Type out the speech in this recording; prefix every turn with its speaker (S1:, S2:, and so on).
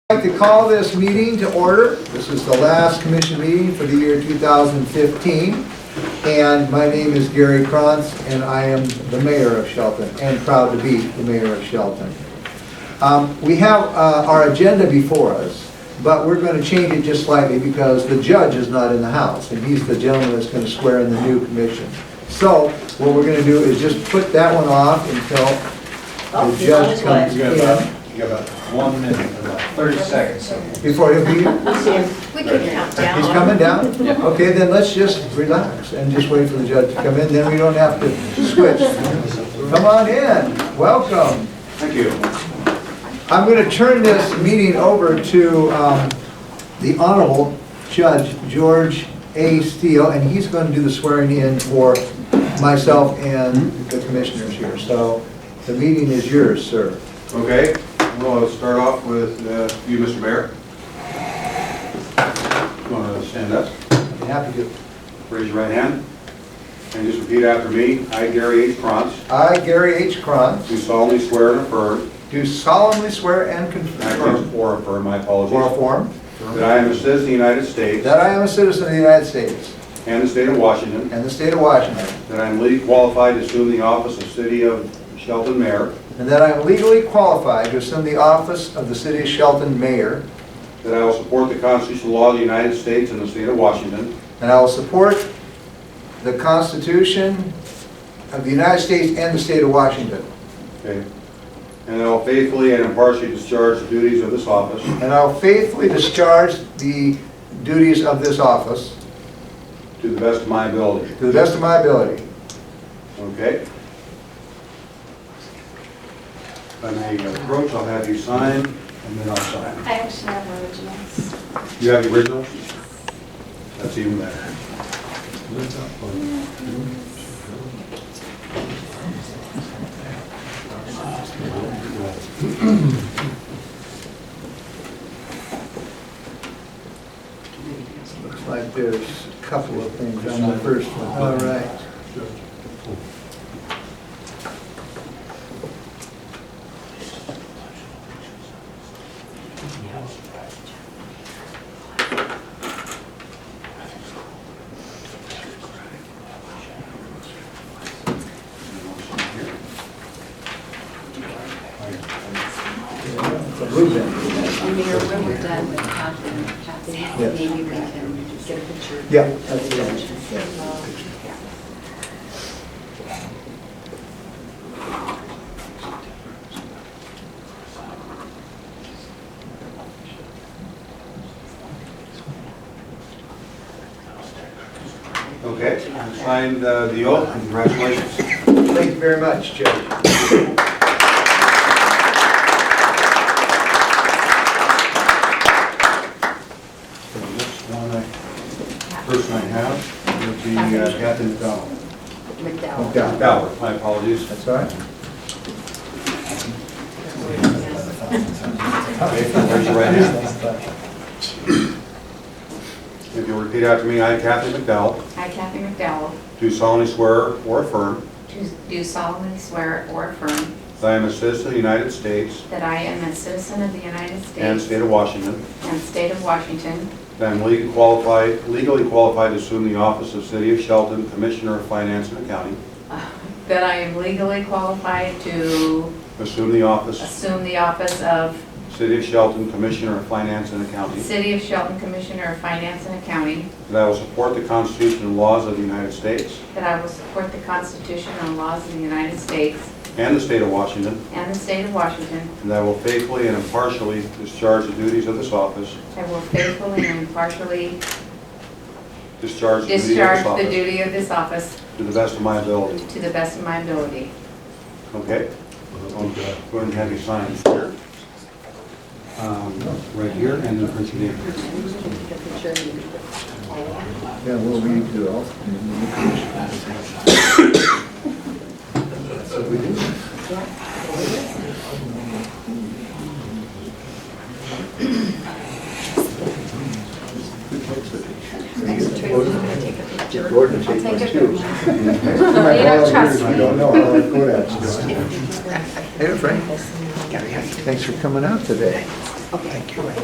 S1: I'd like to call this meeting to order. This is the last commission meeting for the year 2015. And my name is Gary Krantz, and I am the mayor of Shelton, and proud to be the mayor of Shelton. Um, We have uh, our agenda before us, but we're going to change it just slightly because the judge is not in the house, and he's the gentleman that's going to swear in the new commission. So what we're going to do is just put that one off until
S2: Oh,
S1: the
S2: he's on
S1: judge
S2: his way.
S1: comes
S3: You got about,
S1: in,
S3: you got about one minute, about thirty seconds.
S1: before he'll be here.
S2: We can count down.
S1: He's coming down? Okay, then let's just relax and just wait for the judge to come in, then we don't have to switch. Come on in, welcome.
S3: Thank you.
S1: I'm going to turn this meeting over to um, the Honorable Judge George A. Steele, and he's going to do the swearing in for myself and the commissioners here. So the meeting is yours, sir.
S3: Okay, we'll start off with uh, you, Mr. Mayor. Want to stand up?
S1: I'm happy to.
S3: Raise your right hand. And just repeat after me. I, Gary H. Krantz,
S1: I, Gary H. Cron,
S3: do solemnly swear and affirm,
S1: do solemnly swear and
S3: and I can
S1: confirm,
S3: or affirm, my
S1: or
S3: apologies,
S1: affirm,
S3: that I am a citizen of the United States
S1: That I am a citizen of the United States
S3: and the state of Washington,
S1: and the state of Washington,
S3: that I am legally qualified to assume the office of city of Shelton mayor,
S1: and that I am legally qualified to assume the office of the city of Shelton mayor,
S3: that I will support the constitutional law of the United States and the state of Washington,
S1: and I will support the Constitution of the United States and the state of Washington,
S3: Okay. And I will faithfully and impartially discharge the duties of this office
S1: and I will faithfully discharge the duties of this office
S3: to the best of my ability.
S1: to the best of my ability.
S3: Okay? If I may approach, I'll have you sign, and then I'll sign.
S2: I actually have originals.
S3: You have the original? That's even better.
S1: Looks like there's a couple of things on the first one. All right.
S4: And Mayor, when we're done with Kathy, Kathy,
S1: Yes.
S4: maybe we can get a picture. of
S1: Yeah.
S4: the judge.
S3: Okay, I signed uh, the oath, congratulations.
S1: Thank you very much, Judge.
S3: So this one, I- person I have, would be uh, Captain McDonald.
S4: McDowell.
S1: McDowell.
S3: Bauer, my apologies.
S1: That's all right.
S3: Okay, raise your right hand. If you'll repeat after me, I, Kathy McDowell,
S4: I, Kathy McDowell,
S3: do solemnly swear or affirm
S4: do- do solemnly swear or affirm
S3: that I am a citizen of the United States
S4: that I am a citizen of the United
S3: and
S4: States
S3: state of Washington,
S4: and state of Washington,
S3: that I am legally qualified, legally qualified to assume the office of City of Shelton Commissioner of Finance and Accounting,
S4: that I am legally qualified to
S3: assume the office,
S4: assume the office of
S3: City of Shelton Commissioner of Finance and Accounting,
S4: City of Shelton Commissioner of Finance and Accounting,
S3: that I will support the Constitution and laws of the United States
S4: that I will support the Constitution and laws of the United States
S3: and the state of Washington,
S4: and the state of Washington,
S3: and that I will faithfully and impartially discharge the duties of this office,
S4: I will faithfully and impartially
S3: discharge the duties of this
S4: Discharge the
S3: office
S4: duty of this office
S3: to the best of my ability.
S4: to the best of my ability.
S3: Okay? Go ahead and have you sign here. Um, Right here, and then print your name.
S1: Yeah, we'll leave you all. Gordon take one too.
S2: You don't trust me.
S1: don't know how good at it. Hey, Frank. Thanks for coming out today.